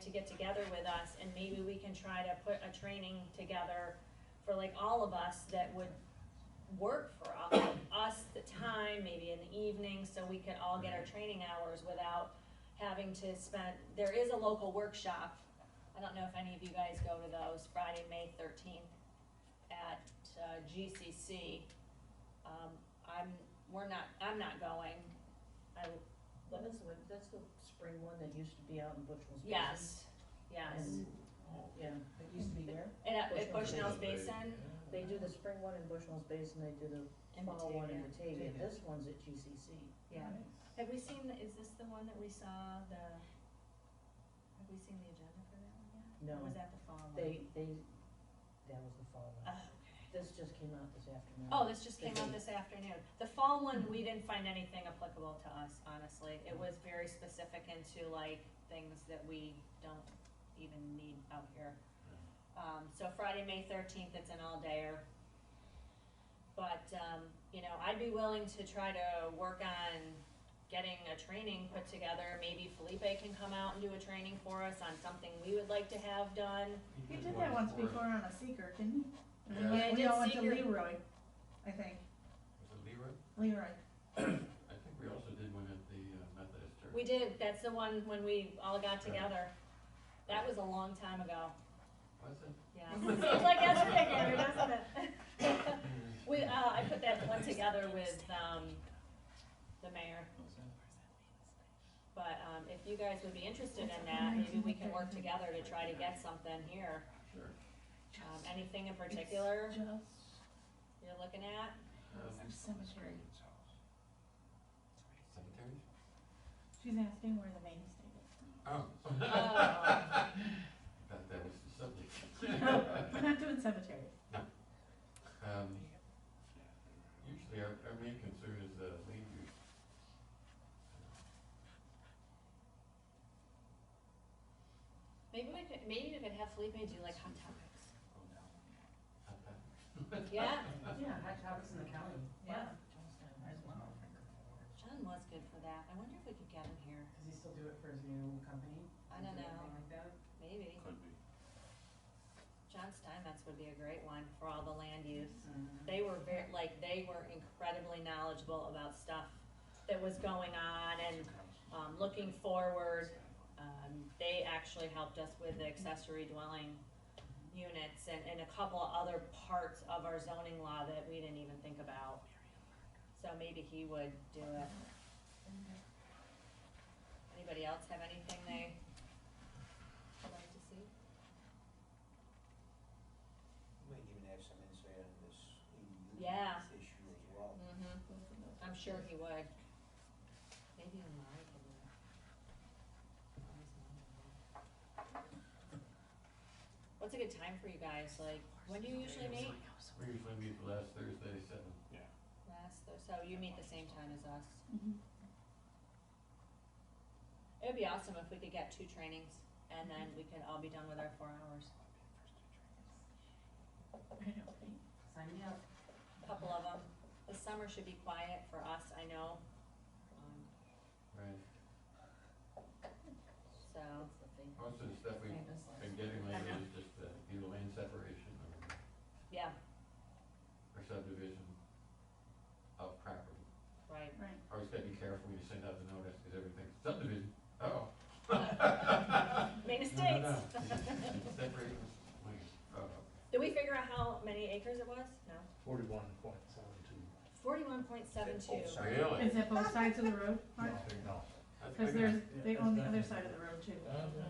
to get together with us and maybe we can try to put a training together for like all of us that would work for all, us, the time, maybe in the evening, so we could all get our training hours without having to spend, there is a local workshop. I don't know if any of you guys go to those, Friday, May thirteenth at uh, GCC. Um, I'm, we're not, I'm not going. I, Well, that's the, one- that's the spring one that used to be out in Bushwell's Basin. yes, yes. And, Yeah, it used to be where? And at- at Bushnell's Bushnell's Basin, They do the spring one in Bushwell's Basin, they do the in fall one in Batavia, Batavia, Batavia. this one's at GCC. yeah. Have we seen, the- is this the one that we saw, the, have we seen the agenda for that one yet? No. Or was that the fall one? They, they, that was the fall Oh, one, okay. this just came out this afternoon. Oh, this just came out this afternoon. The fall one, we didn't find anything applicable to us, honestly. It was very specific into like things that we don't even need out here. Um, so Friday, May thirteenth, it's an all-dayer. But, um, you know, I'd be willing to try to work on getting a training put together. Maybe Felipe can come out and do a training for us on something we would like to have done. You did that once before on a seeker, didn't you? And we- Yeah, I We did all went to Seeker. Leroy, I think, Was it Leroy? Leroy. I think we also did one at the uh, Methodist Church. We did, that's the one when we all got together. That was a long time ago, Was it? yeah. Seems like yesterday, Andrew, doesn't it? We, uh, I put that one together with, um, the mayor. But, um, if you guys would be interested in that, maybe we can work together to try to get something here. Sure. Um, anything in particular Just, you're looking at? Um, our cemetery. Cemeteries? She's asking where the main estate is. Oh. Oh. Thought that was the subject. No, we're not doing cemetery. Um, Usually our, our main concern is the land use. Maybe we could, maybe we could have Felipe do like hot topics. Yeah, Yeah, hot topics in the county. Yeah. As well. John was good for that. I wonder if we could get him here. Does he still do it for his new company? I don't know. Like that? Maybe. Could be. John Steinmetz would be a great one for all the land use. Mm. They were very, like, they were incredibly knowledgeable about stuff that was going on and, um, looking forward. Um, they actually helped us with the accessory dwelling units and, and a couple of other parts of our zoning law that we didn't even think about. So maybe he would do it. Anybody else have anything they would like to see? We might even have some insight on this ADU Yeah. issue as well. Mm-hmm. I'm sure he would. Maybe in my opinion. What's a good time for you guys, like, when do you usually meet? We usually meet the last Thursday, at seven. Last, Thurs- so you meet the same time as us. Mhm. It would be awesome if we could get two trainings and then we could all be done with our four hours. I know, right? Sign me up. A Couple of them. The summer should be quiet for us, I know. Um, Right. So, That's the thing. Most of the stuff we've Famous last been getting I lately know. is just the, either land separation or yeah, or subdivision of property. right. Right. Always gotta be careful when you send out the notice, cause everything's subdivision, oh. Made No, mistakes. no, no. Separate, wait, oh, okay. Did we figure out how many acres it was? No. Forty-one point seven two. Forty-one point seven two. Oh, sorry. Really? Is it both sides of the road? Mark? No. That's Cause big there's, Yeah, they own the it's other not- side of the road too.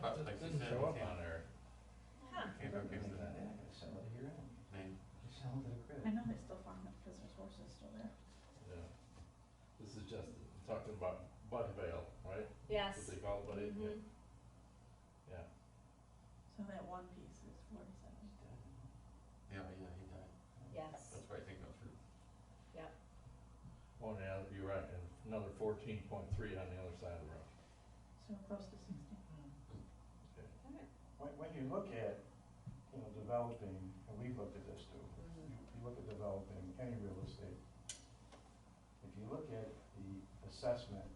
But like you Didn't said, show we up can't- on there. Huh. enough. Can't remember Something the like that, I sell it here, I name. sell it to the crib. I know they still farm it because there's horses still there. Yeah. This is just, talking about Bud Vale, right? Yes. What they call it, Bud, Vale, yeah, Mhm. yeah. So that one piece is forty-seven. Yeah, yeah, he died, Yes, that's why I think I'm through. Oh, yeah, you're right, and another fourteen point three on the other side of the road. So close to sixty. When, when you look at, you know, developing, and we've looked at this too, you, Mhm. you look at developing any real estate. If you look at the assessment,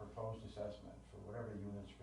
proposed assessment for whatever units